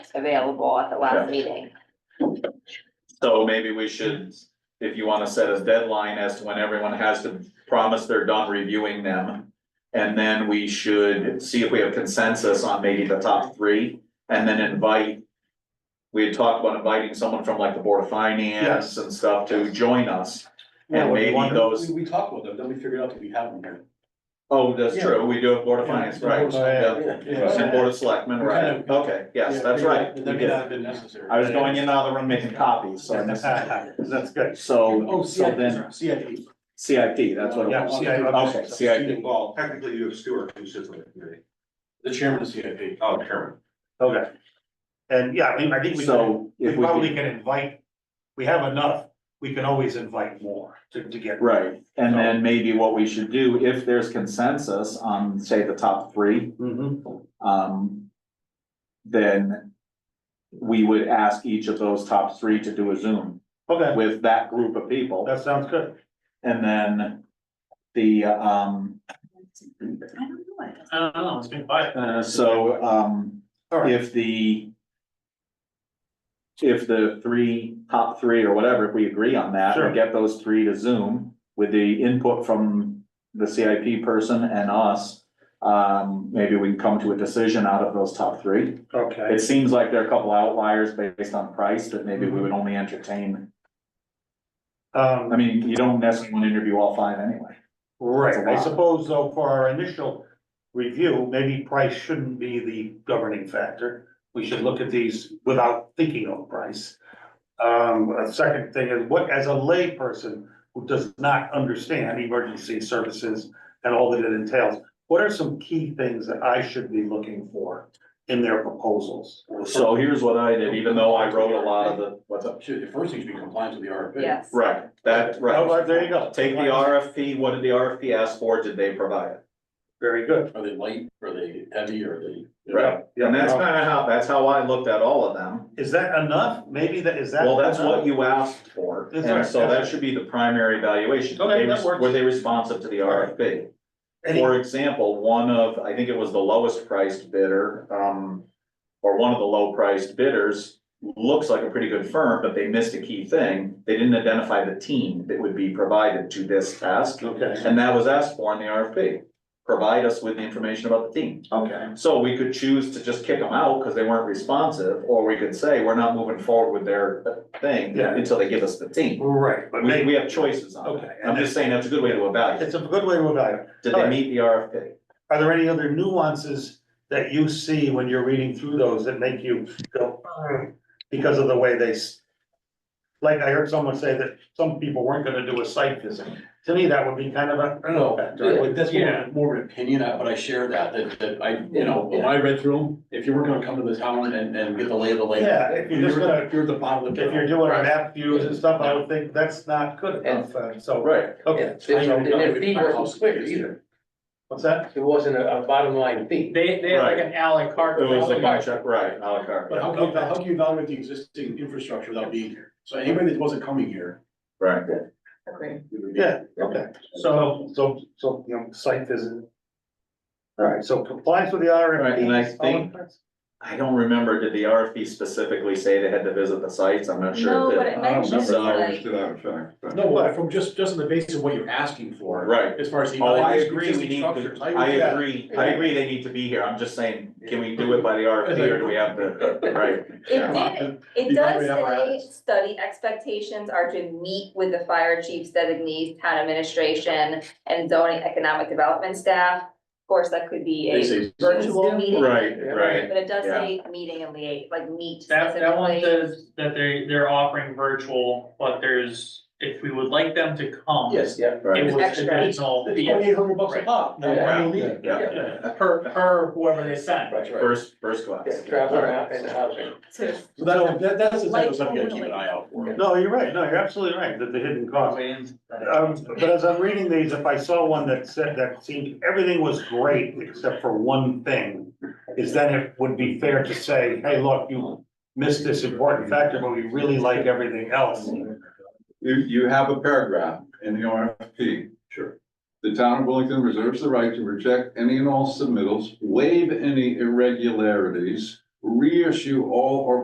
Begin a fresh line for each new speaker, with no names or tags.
available at the
Yeah.
last meeting.
So maybe we should, if you wanna set a deadline as to when everyone has to promise they're done reviewing them. And then we should see if we have consensus on maybe the top three and then invite. We had talked about inviting someone from like the Board of Finance and stuff to join us.
Yeah,
And
what do you
maybe
want?
those,
We, we talked about them, then we figured out that we have them here.
oh, that's
Yeah.
true, we do have Board of Finance, right? Yeah. And Board of Selectmen, right,
Kind of- uh,
okay, yes, that's right.
That may not have been necessary.
I was going in the other room making copies, so I missed it.
That's good.
So,
Oh,
so then,
CIP, CIP.
CIP, that's what it
Yeah,
was.
CIP.
Okay, CIP.
Well, technically you have Stewart, who sits on the committee.
The chairman of CIP.
Oh, Chairman.
Okay. And yeah, I mean, I think we can,
So
we
if we
probably
could,
can invite, we have enough, we can always invite more to, to get.
right, and then maybe what we should do, if there's consensus on, say, the top three,
Mhm.
um. Then we would ask each of those top three to do a Zoom
Okay,
with that group of people.
that sounds good.
And then the, um,
I don't know. I guess.
I don't know, it's been quiet.
uh, so, um,
All right,
if the. If the three, top three or whatever, if we agree on that,
Sure.
we get those three to Zoom with the input from the CIP person and us. Um, maybe we can come to a decision out of those top three.
okay,
It seems like there are a couple outliers based on price that maybe we would only entertain. I
um,
mean, you don't necessarily want to interview all five anyway.
right, I suppose though, for our initial review, maybe price shouldn't be the governing factor. We should look at these without thinking of price. Um, a second thing is what, as a layperson who does not understand emergency services and all that it entails, what are some key things that I should be looking for in their proposals?
So here's what I did, even though I wrote a lot of the, what's up?
Should, the first thing should be compliance with the RFP.
Yes.
Right, that,
Oh,
right.
well, there you go.
Take the RFP, what did the RFP ask for? Did they provide it?
Very good.
Are they light, are they heavy, are they?
Right, and that's kind of how, that's how I looked at all of them.
Is that enough? Maybe that, is that?
Well, that's
enough?
what you asked for,
That's right,
and so
that's
that
right.
should be the primary evaluation.
Okay,
They
that
res-
works.
Were they responsive to the RFP?
Any-
For example, one of, I think it was the lowest priced bidder, um, or one of the low priced bidders. Looks like a pretty good firm, but they missed a key thing. They didn't identify the team that would be provided to this task.
Okay,
And that was asked for in the RFP. Provide us with the information about the team.
okay.
So we could choose to just kick them out because they weren't responsive, or we could say, we're not moving forward with their thing
Yeah.
until they give us the team.
Right, but
We, we
maybe,
have choices on
Okay,
that.
and
I'm just saying that's a good way to evaluate.
it's a good way to evaluate.
Did they meet the RFP?
Are there any other nuances that you see when you're reading through those that make you go, "Ugh," because of the way they? s- Like I heard someone say that some people weren't gonna do a site visit. To me, that would be kind of a, I don't know, factor.
Like, that's more, of- more of an opinion, uh, but I share that, that, that I, you know, when I read through them, if you were gonna come to the town and, and get the lay of the land.
Yeah, if you're just gonna-
If you're at the bottom of the.
If you're doing map views and stuff, I would think that's not good enough, uh, so,
Right.
okay.
their fee wasn't clear either.
What's that?
They, they have like an à la carte.
It was like, right, à la carte,
But how can, you- how can you evaluate the existing infrastructure without being here? So anybody that wasn't coming here.
right.
Yeah, okay. So, so, so, you know, site visit. All right, so compliance with the RFP.
Right, and I think- I don't remember, did the RFP specifically say they had to visit the sites? I'm not sure.
No,
it did.
but it mentions
remember that.
like,
To that effect, but-
No, but from just, just on the basis of what you're asking for.
Right.
As far as. the
Oh, I agree, we
existing
need, to-
structures,
I
would-
agree, I agree they need to be here. I'm just saying, can we do it by the RFP or do we have to, right?
it did, It
You
does
probably have our
say,
eyes.
study expectations are to meet with the fire chiefs designees, town administration, and zoning economic development staff. Of course, that could be
They
a
say-
virtual meeting.
Right, right.
But it does say meeting and liaise, like meet
That, that one
specifically.
says that they, they're offering virtual, but there's, if we would like them to come.
Yes, yeah.
Right.
It was
Extra.
additional,
It's
yeah,
twenty-eight hundred bucks a
Right.
pop. now,
Yeah.
I believe it.
Yeah.
per, per whoever they sent.
That's right.
First, first class.
to-
So that, that, that's the type of
Like,
stuff you gotta keep an
totally.
eye out for.
No, you're right, no, you're absolutely right, that the hidden cost. Um, but as I'm reading these, if I saw one that said, that seemed, everything was great except for one thing, is then it would be fair to say, hey, look, you missed this important factor, but we really like everything else.
You, you have a paragraph in the RFP. Sure. The town of Wellington reserves the right to reject any and all submittals, waive any irregularities, reissue all of our